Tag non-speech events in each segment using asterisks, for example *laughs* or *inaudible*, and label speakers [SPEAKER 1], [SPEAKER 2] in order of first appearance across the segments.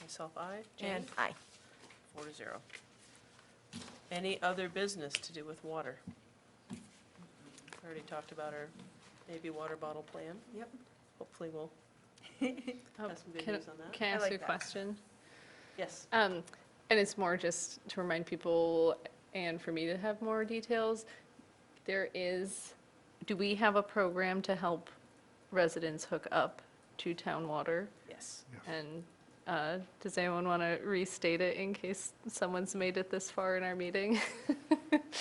[SPEAKER 1] Myself, aye.
[SPEAKER 2] And
[SPEAKER 1] Jane?
[SPEAKER 2] aye.
[SPEAKER 1] Four to zero. Any other business to do with water? Already talked about our maybe water bottle plan.
[SPEAKER 2] Yep.
[SPEAKER 1] Hopefully we'll
[SPEAKER 3] *laughs* Oh,
[SPEAKER 1] have some good
[SPEAKER 3] can-
[SPEAKER 1] news on that.
[SPEAKER 3] Can I
[SPEAKER 2] I
[SPEAKER 3] ask
[SPEAKER 2] like
[SPEAKER 3] you a
[SPEAKER 2] that.
[SPEAKER 3] question?
[SPEAKER 1] Yes.
[SPEAKER 3] Um, And it's more just to remind people and for me to have more details. There is, do we have a program to help residents hook up to town water?
[SPEAKER 1] Yes.
[SPEAKER 3] And uh, does anyone want to restate it in case someone's made it this far in
[SPEAKER 1] *laughs*
[SPEAKER 3] our meeting?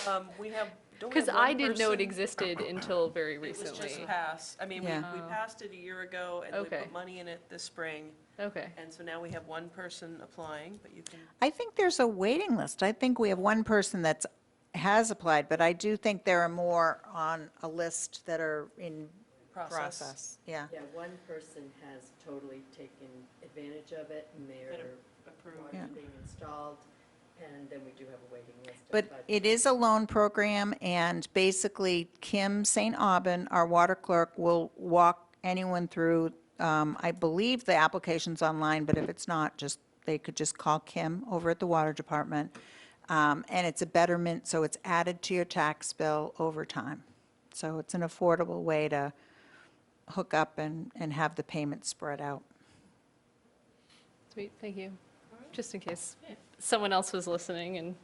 [SPEAKER 1] Um, we have, don't we have
[SPEAKER 3] Because I
[SPEAKER 1] one
[SPEAKER 3] didn't know it
[SPEAKER 1] person?
[SPEAKER 3] existed until very
[SPEAKER 1] It was
[SPEAKER 3] recently.
[SPEAKER 1] just passed. I mean, we,
[SPEAKER 4] Yeah.
[SPEAKER 1] we
[SPEAKER 3] Oh.
[SPEAKER 1] passed it a year ago and we
[SPEAKER 3] Okay.
[SPEAKER 1] put money in it this spring.
[SPEAKER 3] Okay,
[SPEAKER 1] And so now we have one person applying, but you can,
[SPEAKER 4] I think there's a waiting list. I think we have one person that's, has applied, but I do think there are more on a list that are in
[SPEAKER 1] Process.
[SPEAKER 4] process. Yeah.
[SPEAKER 5] Yeah, one person has totally taken advantage of it, and
[SPEAKER 1] Better
[SPEAKER 5] they're
[SPEAKER 1] approve.
[SPEAKER 4] Yeah.
[SPEAKER 5] water's being installed, and then we do have a waiting list. of
[SPEAKER 4] But
[SPEAKER 5] budget.
[SPEAKER 4] it is a loan program, and basically Kim St. Aubin, our water clerk, will walk anyone through, um, I believe the application's online, but if it's not, just, they could just call Kim over at the Water Department. Um, And it's a betterment, so it's added to your tax bill over time. So it's an affordable way to hook up and, and have the payments spread out.
[SPEAKER 3] sweet, thank you. Just in case someone else was listening and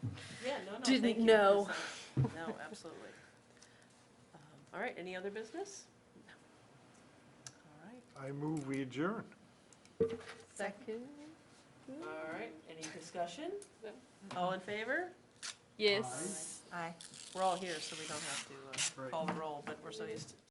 [SPEAKER 1] Yeah, no, no, thank you.
[SPEAKER 3] Didn't
[SPEAKER 1] for this.
[SPEAKER 3] know.
[SPEAKER 1] No, *laughs* absolutely. Um, All right, any other business? All right,
[SPEAKER 6] I move we adjourn.
[SPEAKER 3] second.
[SPEAKER 1] all right, any discussion?
[SPEAKER 3] No.
[SPEAKER 1] All in favor?
[SPEAKER 3] Yes.
[SPEAKER 4] Aye.
[SPEAKER 1] We're all here, so we don't have to uh,
[SPEAKER 6] Right.
[SPEAKER 1] call the roll, but we're so used to